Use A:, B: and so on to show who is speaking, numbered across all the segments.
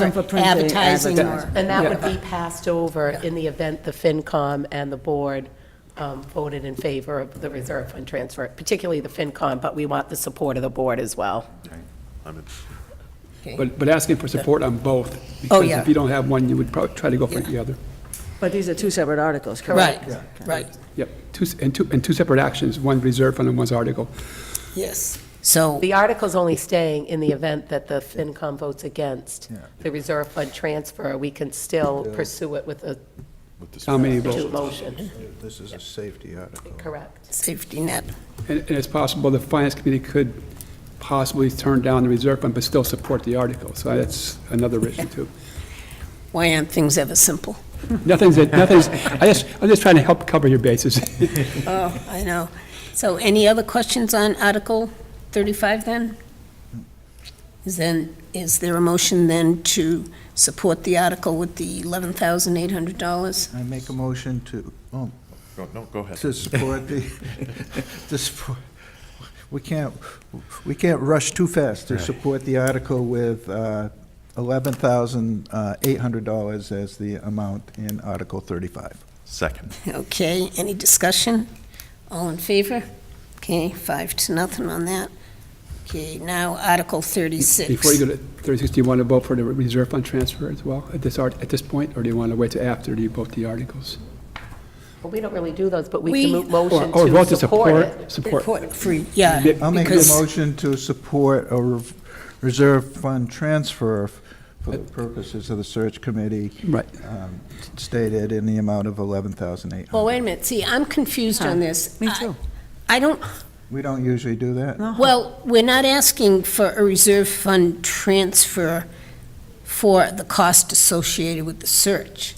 A: Advertising for print, they
B: Advertising or-
A: advertise.
C: And that would be passed over in the event the FinCom and the board um, voted in favor of the reserve fund transfer, particularly the FinCom, but we want the support of the board as well.
D: But, but asking for support on both.
C: Oh,
D: Because
B: yeah.
D: if you don't have one, you would probably try to go for the other.
A: But these are two separate articles, correct?
B: Right, right,
D: Yep, two, s- and two, and two separate actions, one reserve fund and one's article.
B: yes. So,
C: The article's only staying in the event that the FinCom votes against the reserve fund transfer, we can still pursue it with a
D: How many votes?
C: two motion,
E: This is a safety article.
C: correct?
B: safety net,
D: And, and it's possible the finance committee could possibly turn down the reserve fund, but still support the article. So that's another issue too.
B: why aren't things ever simple?
D: Nothing's, nothing's, I just, I'm just trying to help cover your bases.
B: Oh, I know. So any other questions on Article 35 then? Is then, is there a motion then to support the article with the $11,800?
E: I make a motion to, oh,
F: Go- No, go ahead.
E: to support the, to support, we can't, we can't rush too fast to support the article with uh, $11,800 as the amount in Article 35.
F: Second.
B: Okay, any discussion? All in favor? Okay, five to nothing on that. Okay, now Article 36.
D: Before you go to 36, do you want to vote for the reserve fund transfer as well at this, art- at this point? Or do you want to wait till after you vote the articles?
C: Well, we don't really do those, but we
B: We-
C: can move
D: Or
C: motion
D: or vote
C: to support it.
D: Support.
B: Free, yeah.
E: I'll make a
B: because-
E: motion to support a re- reserve fund transfer for
B: Uh,
E: the purposes of the search committee
D: Right.
E: um, stated in the amount of
B: Well,
E: $11,800.
B: wait a minute, see, I'm confused on this.
A: Me
B: I-
A: too.
B: I don't,
E: We don't usually do that.
B: Uh,
D: Uh-huh.
B: well, we're not asking for a reserve fund transfer for the cost associated with the search.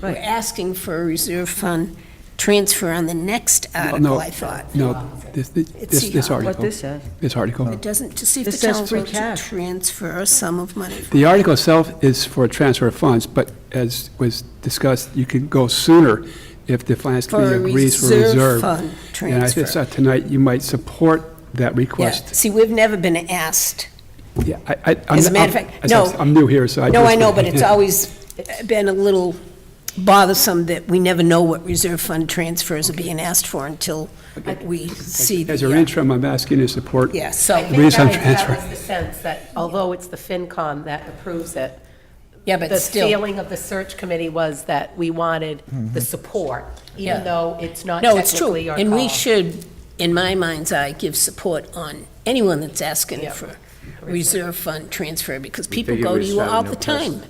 B: We're
A: Right.
B: asking for a reserve fund transfer on the next
D: no.
B: article, I thought.
D: No, this, this,
B: see,
D: this this
B: uh,
D: article.
A: What this says.
D: This article.
B: It doesn't, to see if
A: This
B: the
A: says
B: town
A: free
B: will to
A: cash.
B: transfer a sum of money.
D: The article itself is for a transfer of funds, but as was discussed, you can go sooner if the finance
B: For
D: committee
B: a
D: agrees for
B: reserve
D: reserve.
B: fund
D: And I
B: transfer.
D: saw tonight, you might support that
B: Yeah,
D: request.
B: see, we've never been asked.
D: Yeah, I, I. I'm-
B: As a matter of
D: I'm-
B: fact,
D: as I was-
B: no.
D: I'm new here, so I.
B: No, I
D: just-
B: know, but it's always been a little bothersome that we never know what reserve fund transfers are being asked for until we see
D: As your
B: the,
D: interim, I'm asking you to support.
B: yeah,
C: I
B: so,
C: think that
D: Reserve
C: was-
D: transfer.
C: That was the sense, that although it's the FinCom that approves it,
B: yeah, but
C: the
B: still.
C: feeling of the search committee was that we wanted the support,
B: Yeah.
C: even though Mm-hmm. it's not
B: No, it's true,
C: technically our call.
B: and we should, in my mind's eye, give support on anyone that's asking
C: Yeah.
B: for reserve fund transfer, because people
G: figure
B: go to
G: we
B: you
G: just have
B: all
G: no
B: the time,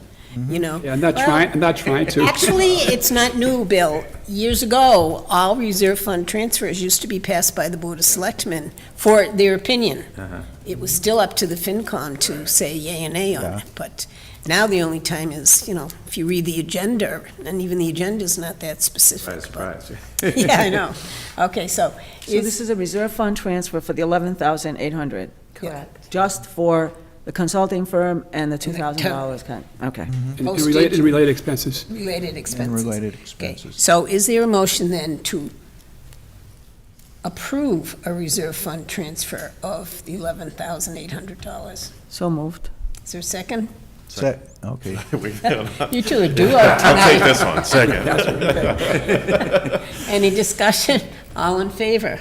B: you know?
D: Yeah, I'm not
B: Well,
D: trying, I'm not trying to.
B: Actually, it's not new, Bill. Years ago, all reserve fund transfers used to be passed by the Board of Selectmen for their opinion. It was still up to the FinCom to say yay and nay on it, but now the only time is, you know, if you read the agenda, and even the agenda's not that specific.
G: Surprise, surprise.
B: but- Yeah, I know. Okay, so,
A: So this is a reserve fund transfer for the 11,800,
C: Correct.
A: just for the consulting firm and the $2,000 kind, okay.
D: And related, and related expenses.
B: related
E: And
B: expenses.
E: related
B: Okay,
E: expenses.
B: so is there a motion then to approve a reserve fund transfer of the $11,800?
A: So moved.
B: Is there a second?
E: Se- Okay.
F: We- I'll
B: You two are duo tonight.
F: take this one, second.
B: Any discussion? All in favor?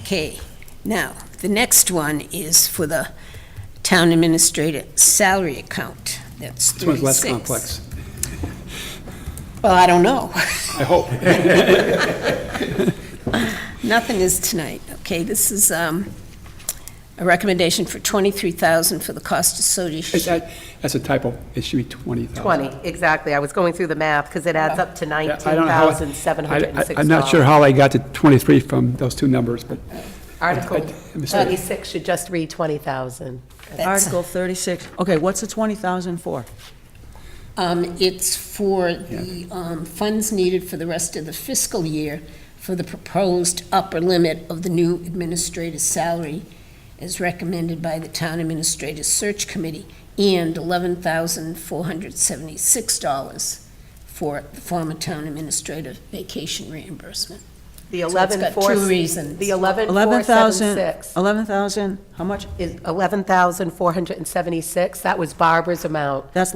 B: Okay, now, the next one is for the town administrator salary account. That's
D: This one's less
B: 36.
D: complex,
B: Well, I don't know.
D: I hope.
B: Nothing is tonight, okay? This is um, a recommendation for 23000 for the cost
D: It's-
B: associated.
D: that- That's a typo. It should be 20,000.
C: 20, exactly. I was going through the math, because it adds up to
D: Yeah, I don't know how- I- I-
C: $19,706.
D: I'm not sure how I got to 23 from those two numbers, but
C: Article
D: I- I'm sorry.
C: 36 should just read 20,000.
B: That's-
A: Article 36, okay, what's the 20,000 for?
B: Um, It's for the um, funds needed for the rest of the fiscal year for the proposed upper limit of the new administrator's salary as recommended by the Town Administrator's Search Committee and $11,476 for the former town administrator vacation reimbursement.
C: The
B: So it's
C: 11,
B: got
C: four-
B: two reasons.
C: The 11,
A: 11,000,
C: 476
A: 11,000, how much?
C: is 11,476. That was Barbara's amount.
A: That's